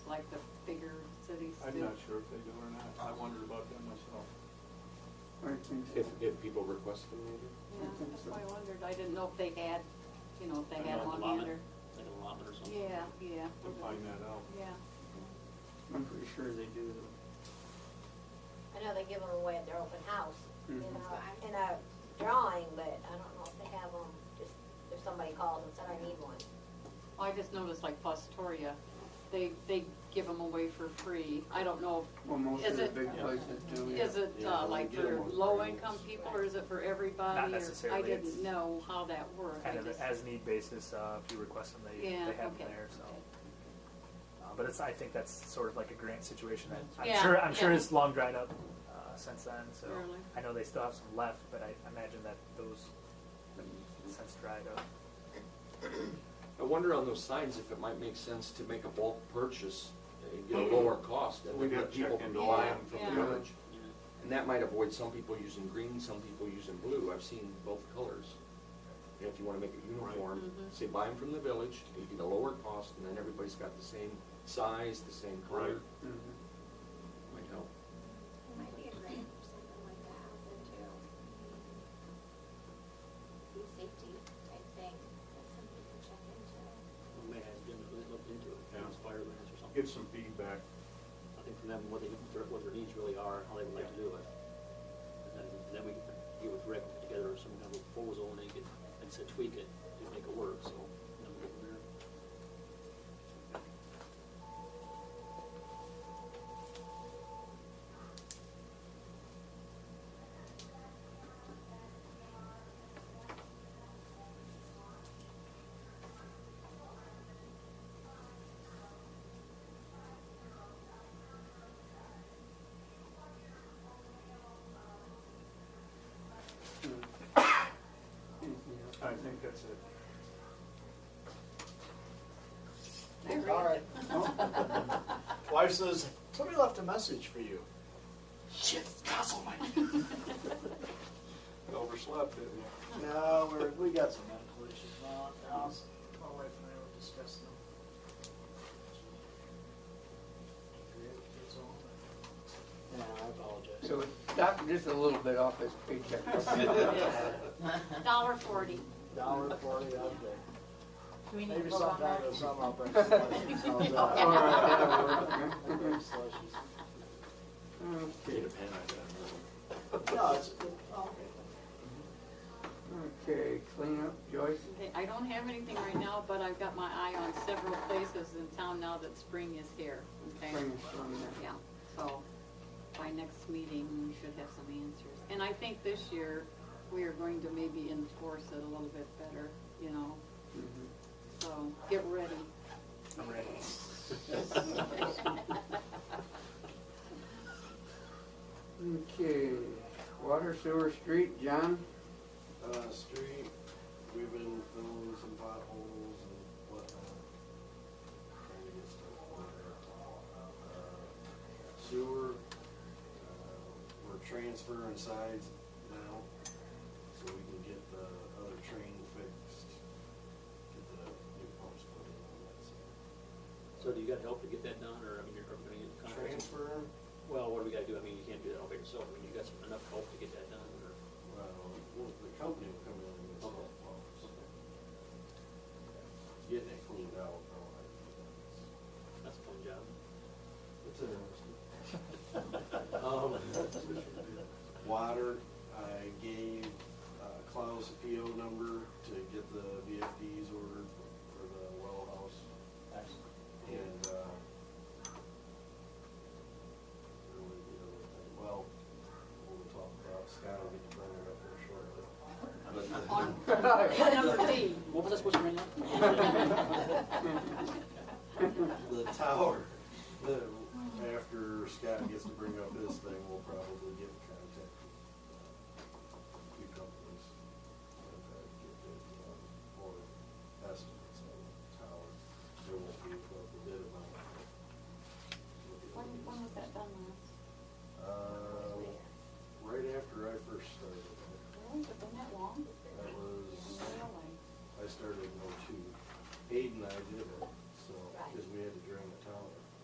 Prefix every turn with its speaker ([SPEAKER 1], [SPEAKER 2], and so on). [SPEAKER 1] like the bigger cities do?
[SPEAKER 2] I'm not sure if they do or not. I wondered about that myself.
[SPEAKER 3] I think so.
[SPEAKER 4] If, if people request them, maybe?
[SPEAKER 1] Yeah, that's why I wondered, I didn't know if they had, you know, if they had
[SPEAKER 5] Like
[SPEAKER 1] one
[SPEAKER 5] an allotment-
[SPEAKER 1] hand or,
[SPEAKER 5] Like an allotment or something?
[SPEAKER 1] yeah, yeah.
[SPEAKER 2] We'll find that out.
[SPEAKER 1] Yeah.
[SPEAKER 3] I'm pretty sure they do though.
[SPEAKER 6] I know they give them away at their open house, you
[SPEAKER 3] Mhm.
[SPEAKER 6] know, in a drawing, but I don't know if they have them, just if somebody calls and said, I need one.
[SPEAKER 1] Well, I just noticed like Fostoria, they, they give them away for free. I don't know,
[SPEAKER 3] Well, most
[SPEAKER 1] Is
[SPEAKER 3] of the
[SPEAKER 1] it-
[SPEAKER 3] big places do. yeah.
[SPEAKER 1] is it
[SPEAKER 4] Yeah,
[SPEAKER 1] uh,
[SPEAKER 4] we
[SPEAKER 1] like
[SPEAKER 4] get 'em
[SPEAKER 1] for
[SPEAKER 4] on
[SPEAKER 1] low
[SPEAKER 4] free.
[SPEAKER 1] income people or is it for everybody?
[SPEAKER 7] Not
[SPEAKER 1] or-
[SPEAKER 7] necessarily,
[SPEAKER 1] I
[SPEAKER 7] it's
[SPEAKER 1] didn't know how that worked. I
[SPEAKER 7] kind of
[SPEAKER 1] just-
[SPEAKER 7] as need basis, uh, if you request them, they, they
[SPEAKER 1] Yeah,
[SPEAKER 7] have them
[SPEAKER 1] okay,
[SPEAKER 7] there, so.
[SPEAKER 1] okay.
[SPEAKER 7] Uh, But it's, I think that's sort of like a grant situation that, I'm
[SPEAKER 1] Yeah,
[SPEAKER 7] sure, I'm sure
[SPEAKER 1] yeah.
[SPEAKER 7] it's long dried up, uh, since then, so.
[SPEAKER 1] Really?
[SPEAKER 7] I know they still have some left, but I imagine that those have since dried up.
[SPEAKER 4] I wonder on those signs if it might make sense to make a bulk purchase and get a lower cost and
[SPEAKER 2] We'd
[SPEAKER 4] then
[SPEAKER 2] have
[SPEAKER 4] let
[SPEAKER 2] to
[SPEAKER 4] people
[SPEAKER 2] check into all
[SPEAKER 4] buy them
[SPEAKER 2] that
[SPEAKER 4] from
[SPEAKER 1] Yeah.
[SPEAKER 4] the village.
[SPEAKER 5] Yeah.
[SPEAKER 4] And that might avoid some people using green, some people using blue. I've seen both colors. And if you wanna make it uniform,
[SPEAKER 1] Mhm.
[SPEAKER 4] say buy them from the village, you get a lower cost and then everybody's got the same size, the same
[SPEAKER 2] Right.
[SPEAKER 4] color.
[SPEAKER 3] Mhm.
[SPEAKER 4] Might help.
[SPEAKER 8] It might be a grant or something like that out there too. Food safety type thing, that's something you can check into.
[SPEAKER 5] We may have them look into it,
[SPEAKER 2] Yeah.
[SPEAKER 5] inspire lands or something.
[SPEAKER 2] Get some feedback.
[SPEAKER 5] I think from them, what they, what their needs really are, how they would like to do it. And then, and then we can get with Rick put together some kind of proposal and then you can, like I said, tweak it and make it work, so. then we'll go from there.
[SPEAKER 3] Mhm. Anything else?
[SPEAKER 2] I think that's it.
[SPEAKER 1] I read
[SPEAKER 9] All
[SPEAKER 1] it.
[SPEAKER 9] Wife says, somebody left a message for you. Shit, Castle,
[SPEAKER 2] Overslept, didn't you?
[SPEAKER 9] No, we're, we got some medical issues. Well, I was- My wife and I were discussing them. Yeah, I apologize.
[SPEAKER 3] So Doc, just a little bit off his paycheck.
[SPEAKER 1] Dollar forty.
[SPEAKER 9] Dollar forty out there.
[SPEAKER 6] Do we
[SPEAKER 9] Maybe sometime this summer I'll bring some slushies. How's that? I'll bring slushies.
[SPEAKER 4] Need
[SPEAKER 3] Okay,
[SPEAKER 4] a pen, I bet.
[SPEAKER 9] No, it's, oh, okay.
[SPEAKER 3] okay, clean up, Joyce.
[SPEAKER 1] Okay, I don't have anything right now, but I've got my eye on several places in town now that spring is here, okay?
[SPEAKER 3] Bring us on there.
[SPEAKER 1] Yeah, so by next meeting, we should have some answers. And I think this year, we are going to maybe enforce it a little bit better, you know,
[SPEAKER 3] Mhm.
[SPEAKER 1] so get ready.
[SPEAKER 7] I'm ready.
[SPEAKER 3] Okay, water, sewer, street, John?
[SPEAKER 9] uh, street, we've been filling some potholes and whatnot. Trying to get stuff ordered. Sewer, uh, we're transferring sides now, so we can get the other train fixed, get the new pumps put in on that side.
[SPEAKER 5] So do you got help to get that done, or, I mean, you're gonna get contracts?
[SPEAKER 9] Transfer,
[SPEAKER 5] Well, what do we gotta do? I mean, you can't do that all by yourself. I mean, you got some- enough help to get that done, or?
[SPEAKER 9] well, well, the company will come in and install
[SPEAKER 5] Okay.
[SPEAKER 9] pumps. Getting it cleaned out, though, I think that's.
[SPEAKER 5] That's a fun job.
[SPEAKER 9] It's interesting.
[SPEAKER 5] Um,
[SPEAKER 9] Water, I gave uh, Klaus a PO number to get the VFDs ordered for the well house. And, uh, there was the other thing. well, we'll talk about, Scott will get the burner up there shortly.
[SPEAKER 1] On number D.
[SPEAKER 5] What was I supposed to bring up?
[SPEAKER 9] The tower, the, after Scott gets to bring up his thing, we'll probably get in contact with a few companies. and, uh, get bids on Or estimates on the tower, there won't be a bid amount.
[SPEAKER 1] When, when was that done last?
[SPEAKER 9] Uh, right after I first started,
[SPEAKER 1] Really, has it been that long?
[SPEAKER 9] that was
[SPEAKER 1] Really?
[SPEAKER 9] oh I started in '02. Aiden and I did it, so, because we had to drain the town.